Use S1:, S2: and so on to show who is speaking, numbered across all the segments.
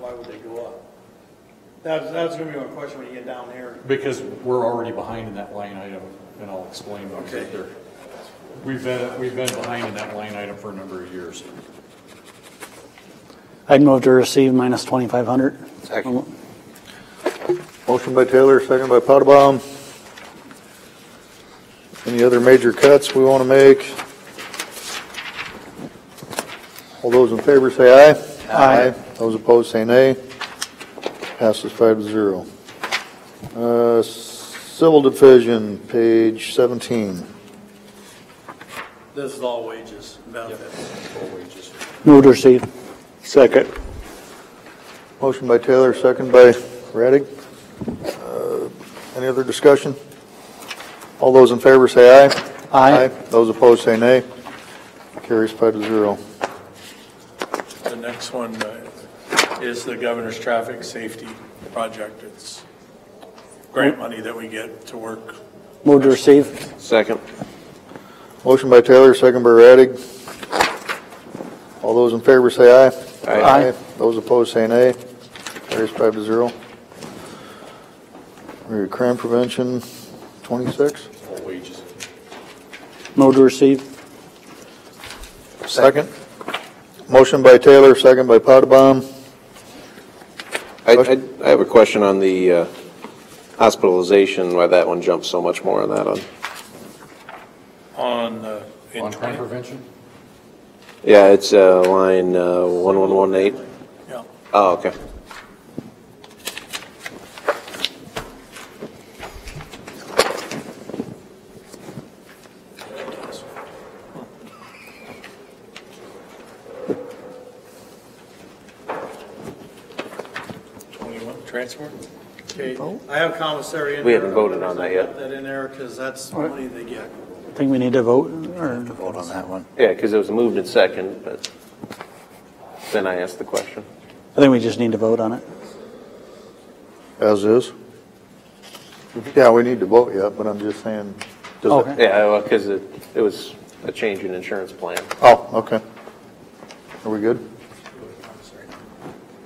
S1: why would they go up? That's, that's gonna be my question when you get down there.
S2: Because we're already behind in that line item, and I'll explain when we
S1: Okay.
S2: get there. We've been, we've been behind in that line item for a number of years.
S3: I'd move to receive minus 2,500. Second.
S4: Motion by Taylor, second by Potabom. Any other major cuts we want to make? All those in favor say aye.
S3: Aye.
S4: Those opposed say nay. Passes five to zero. Uh, Civil Division, page 17.
S1: This is all wages, benefits.
S2: Full wages.
S3: Move to receive. Second.
S4: Motion by Taylor, second by Radig. Uh, Any other discussion? All those in favor say aye.
S3: Aye.
S4: Those opposed say nay. Carries five to zero.
S5: The next one uh, is the governor's traffic safety project. It's grant money that we get to work.
S3: Move to receive.
S6: Second.
S4: Motion by Taylor, second by Radig. All those in favor say aye.
S6: Aye.
S3: Aye.
S4: Those opposed say nay. Carries five to zero. Your Crime prevention, 26?
S2: Full wages.
S3: Move to receive.
S4: Second. Motion by Taylor, second by Potabom.
S6: I, I- I have a question on the uh, hospitalization, why that one jumped so much more on that one.
S5: On, uh, in
S2: On crime
S5: 20,
S2: prevention?
S6: Yeah, it's uh, line uh, 1118.
S5: yeah.
S6: Oh, okay.
S5: Twenty-one, transport?
S1: Okay, I have commissary in there.
S6: We haven't voted on that yet.
S1: Put That in there, cause that's the money they get.
S3: I think we need to vote, or... Vote on that one.
S6: Yeah, because it was moved in second, but then I asked the question.
S3: I think we just need to vote on it.
S4: As is? Yeah, we need to vote yet, but I'm just saying. does it-
S3: Okay.
S6: Yeah, because it, it was a change in insurance plan.
S4: Oh, okay. Are we good?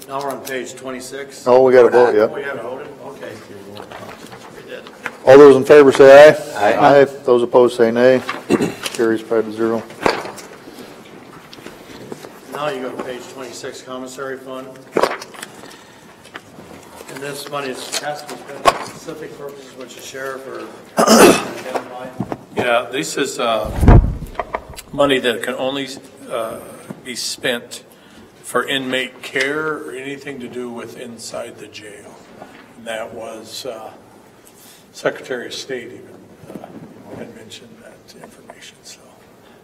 S1: Now we're on page twenty-six.
S4: Oh, we got to vote yet.
S1: We haven't voted, okay.
S4: All those in favor say aye.
S6: Aye.
S4: Aye. Those opposed say nay. Carries five to zero.
S1: Now you go to page twenty-six, commissary fund. And this money is tasked to spend for specific purposes, which the sheriff or identified.
S5: Yeah, this is uh, money that can only uh, be spent for inmate care or anything to do with inside the jail. And that was, uh, Secretary of State even uh, had mentioned that information, so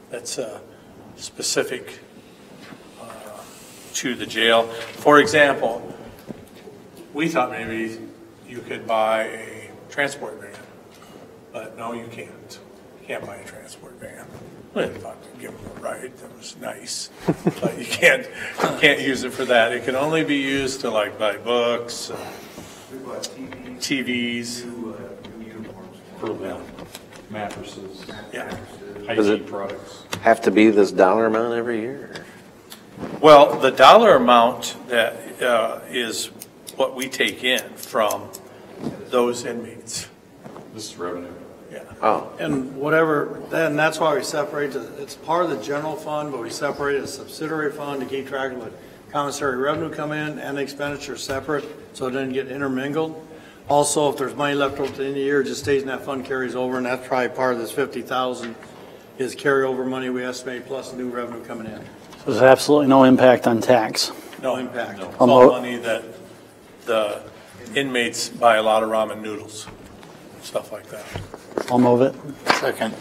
S5: that's uh, specific uh, to the jail. For example, we thought maybe you could buy a transport van. But no, you can't. You Can't buy a transport van. I thought to give them a ride, that was nice. But you can't, you can't use it for that. It can only be used to like buy books, uh, TVs,
S2: Mattresses,
S5: yeah.
S6: Does
S2: hygiene
S6: it-
S2: products.
S6: Have to be this dollar amount every year?
S5: Well, the dollar amount that uh, is what we take in from those inmates,
S2: This is revenue.
S5: yeah.
S6: Oh,
S1: And whatever, then that's why we separate, the- it's part of the general fund, but we separate a subsidiary fund to keep track of what commissary revenue come in and expenditure separate, so it doesn't get intermingled. Also, if there's money left over at the end of the year, it just stays in that fund, carries over, and that's probably part of this fifty thousand is carryover money we estimate plus new revenue coming in.
S3: So There's absolutely no impact on tax.
S1: No impact.
S5: It's
S3: I'll
S5: all
S3: mo-
S5: money that the inmates buy a lot of ramen noodles, stuff like that.
S3: I'll move it.
S4: Second.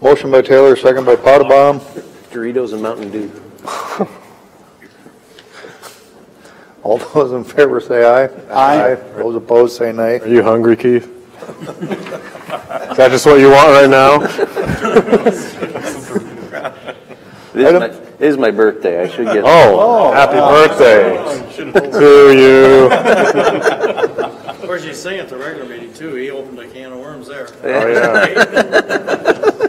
S4: Motion by Taylor, second by Potabom.
S6: Doritos and Mountain Dew.
S4: All those in favor say aye.
S3: Aye.
S4: Those opposed say nay.
S7: Are you hungry, Keith? Is that just what you want right now?
S6: It is my- it is my birthday, I should get.
S7: Oh, happy birthday to you.
S1: Of course, you sing at the regular meeting too, he opened a can of worms there.
S7: Oh, yeah.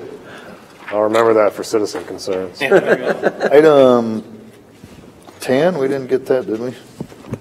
S7: I'll remember that for citizen concerns.
S4: Item 10, we didn't get that, did we?